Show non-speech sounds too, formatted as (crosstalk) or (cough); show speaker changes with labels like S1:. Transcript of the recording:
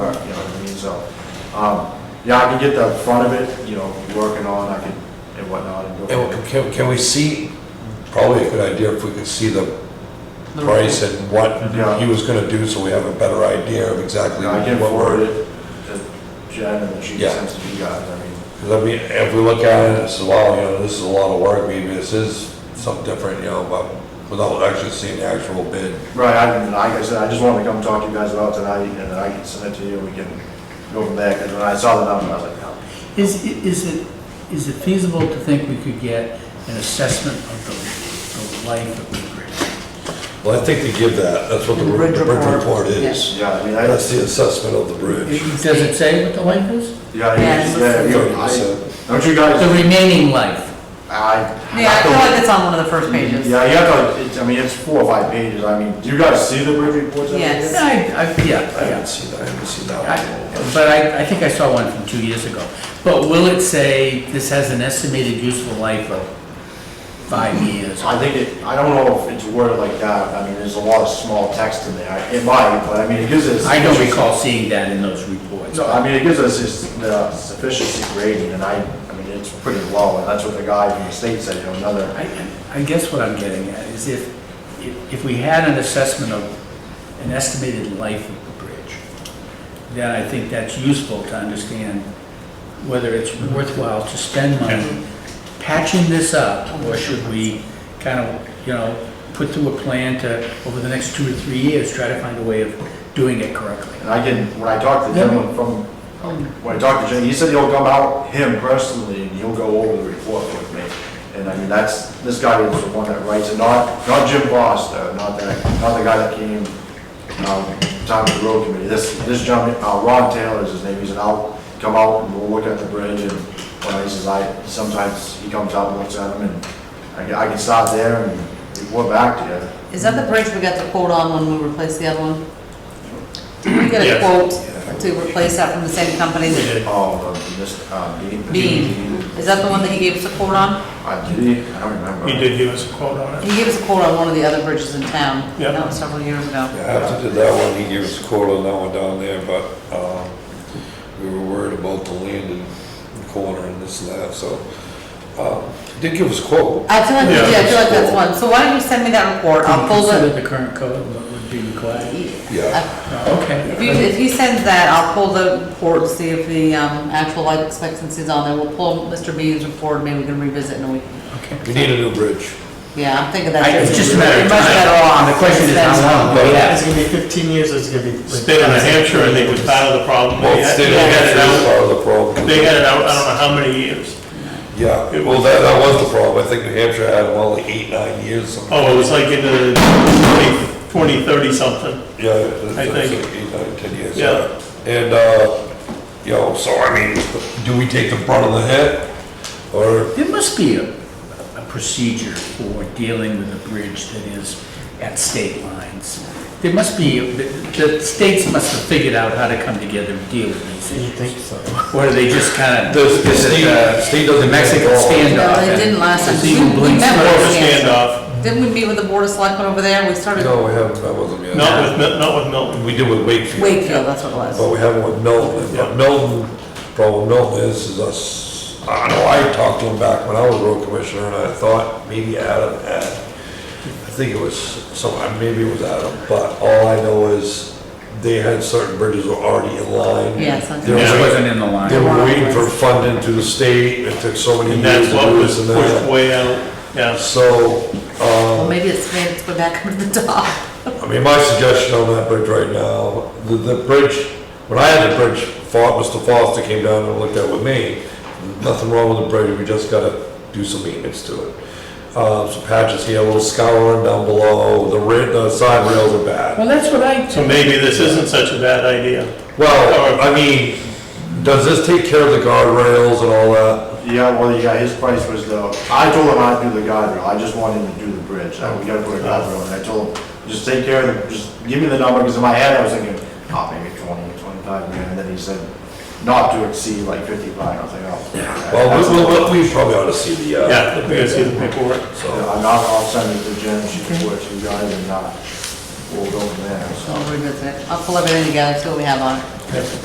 S1: so, um, yeah, I can get the front of it, you know, working on, I can, and whatnot, and go.
S2: And can, can we see, probably a good idea if we could see the price and what
S1: Yeah.
S2: he was gonna do, so we have a better idea of exactly
S1: And I can
S2: what
S1: forward
S2: we're.
S1: it to Jen and then she
S2: Yeah.
S1: sends it to you guys, I mean,
S2: Because I mean, if we look at it, and say, wow, you know, this is a lot of work, maybe this is something different, you know, but without actually seeing the actual bid.
S1: right, I, and like I said, I just wanted to come talk to you guys about tonight, and then I can send it to you, we can go from there, because when I saw the number, I was like, oh.
S3: Is, is it, is it feasible to think we could get an assessment of the, the life of the bridge?
S2: Well, I think they give that, that's what the
S4: The
S2: bridge
S4: bridge report,
S2: report is.
S4: yes.
S1: Yeah, I mean, I,
S2: That's the assessment of the bridge.
S3: It- Does it say what the life is?
S1: yeah, I-
S4: Yeah, it's-
S1: yeah, you,
S2: Thirty percent.
S1: I- don't you guys?
S3: The remaining life.
S1: I.
S4: Yeah, I feel like that's on one of the first pages.
S1: Yeah, you have to, it's, I mean, it's four or five pages, I mean, do you guys see the bridge reports? every
S4: Yes.
S1: year?
S3: Yeah, I,
S2: I
S3: I, yeah, yeah.
S2: haven't seen that, I haven't seen that one.
S3: I- But I, I think I saw one from two years ago. But will it say this has an estimated useful life of five years?
S1: I think it, I don't know if it's worded like that, I mean, there's a lot of small text in there, it might, but I mean, it gives us.
S3: I don't recall seeing that in those reports.
S1: No, I mean, it gives us this, the sufficiency grading, and I, I mean, it's pretty low, and that's what the guy from the state said, you know, another,
S3: I, I guess what I'm getting at is if, if- if we had an assessment of an estimated life of the bridge, then I think that's useful to understand whether it's worthwhile to spend money patching this up, or should we kind of, you know, put through a plan to, over the next two or three years, try to find a way of doing it correctly.
S1: and I can, when I talked to him from, when I talked to Jim, he said he'll come out, him personally, and he'll go over the report with me. And I mean, that's, this guy was the one that writes it, not, not Jim Foster, not that, not the guy that came, um, time of the road committee. This, this gentleman, uh, Ron Taylor is his name, he said, I'll come out and we'll look at the bridge and, well, he says, I, sometimes he comes out and looks at them and I can, I can stop there and report back to you.
S4: Is that the bridge we got the quote on when we replaced the other one? We got a
S5: Yes.
S4: quote to replace that from the same company,
S5: We did.
S1: Oh, um, this, um, Dean?
S4: Bean. Is that the one that he gave us a quote on?
S1: Uh, did he? I don't remember.
S5: He did give us a quote on
S4: He
S5: it.
S4: gave us a quote on one of the other bridges in town.
S5: Yeah.
S4: That was several years ago.
S2: Yeah, After did that one, he gave us a quote on that one down there, but, um, we were worried about the land and the corner and this and that, so, um, he did give us a quote.
S4: I feel like,
S5: Yeah.
S4: yeah, I feel like that's one. So why don't you send me that report? I'll pull
S3: Consider
S4: the.
S3: the current code, what would be required.
S2: Yeah.
S3: Oh,
S4: If you,
S3: Okay.
S4: if he sends that, I'll pull the report, see if the, um, actual life expectancy is on there. We'll pull Mr. Bean's report, maybe we can revisit in a week.
S3: Okay.
S2: We need a new bridge.
S4: Yeah, I'm thinking that's.
S3: I- It's just a matter of
S4: Much better
S3: time.
S4: off.
S3: Um, The question is
S4: That's-
S3: how long, but yeah.
S6: It's gonna be fifteen years, or it's gonna be. like-
S5: State of New Hampshire, and they was part of the problem.
S2: Well,
S5: They had
S2: state
S5: they
S2: of
S5: had it
S2: Hampshire is
S5: out,
S2: part of the problem.
S5: they had it out, I don't know how many years.
S2: Yeah, well, that, that was the problem. I think New Hampshire had them all like eight, nine years. something.
S5: Oh, it was like in the 20, 20, 30 something.
S2: Yeah, it's
S5: Oh, I
S2: like
S5: think.
S2: eight, nine, ten years.
S5: Yeah.
S2: And, uh, you know, so I mean, do we take the brunt of the hit? Or,
S3: There must be a, a procedure for dealing with a bridge that is at state lines. There must be, the, the states must have figured out how to come together and deal with these
S6: You think
S3: issues.
S6: so?
S3: Or do they just kind of?
S2: The- the state- state doesn't
S3: Mexican
S2: get involved.
S3: standoff.
S4: No, they
S3: and
S4: didn't last time.
S3: it's even
S4: We- we
S3: blinks
S4: met
S5: More
S3: through.
S5: of a standoff.
S4: Didn't we meet with the Board of Selectmen over there? We started
S2: no, we haven't, that wasn't yet.
S5: Not with, Mil- not with Milton.
S2: We did with Wakefield.
S4: Wakefield, that's what it was.
S2: But we haven't with Milton,
S5: Yeah.
S2: but Milton, problem with Milton is, is us, I know I talked to him back when I was road commissioner, and I thought maybe Adam had, I think it was some, maybe it was Adam, but all I know is they had certain bridges were already in line.
S4: Yes, I
S2: They were
S3: It
S5: Yeah.
S2: waiting-
S3: wasn't in the
S2: They
S3: line.
S2: were waiting for funding through the state, it took so many
S5: And
S2: years
S5: that's
S2: to
S5: what
S2: do
S5: was
S2: this and
S5: pushed
S2: that.
S5: way out, yeah.
S2: So,
S4: Well, maybe it's made its way back (laughs) up to the top.
S2: I mean, my suggestion on that bridge right now, the, the bridge, when I had the bridge, Fo- Mr. Foster came down and looked at it with me. Nothing wrong with the bridge, we just gotta do some maintenance to it. Uh, some patches here, a little scouring down below, the ri, the side rails are bad.
S3: Well, that's what I,
S5: So maybe this isn't such a bad idea.
S2: Well, I mean, does this take care of the guardrails and all that?
S1: Yeah, well, yeah, his price was the, I told him I'd do the guardrail, I just wanted him to do the bridge, I- we gotta put a guardrail, and I told him, just take care of the, just give me the number, because in my head, I was thinking, oh, maybe twenty, twenty-five grand, and then he said, not to exceed like fifty-five, I was like, oh. okay.
S2: Well, we, we, we probably ought to see the, uh.
S5: Yeah,
S2: the
S5: we gotta see the
S2: paper.
S5: paperwork.
S2: So,
S1: I'm not, I'll send it to Jen, she can work to you guys, and, uh, we'll go from there, so.
S4: I'll revisit it. I'll pull everything together, see what we have on it.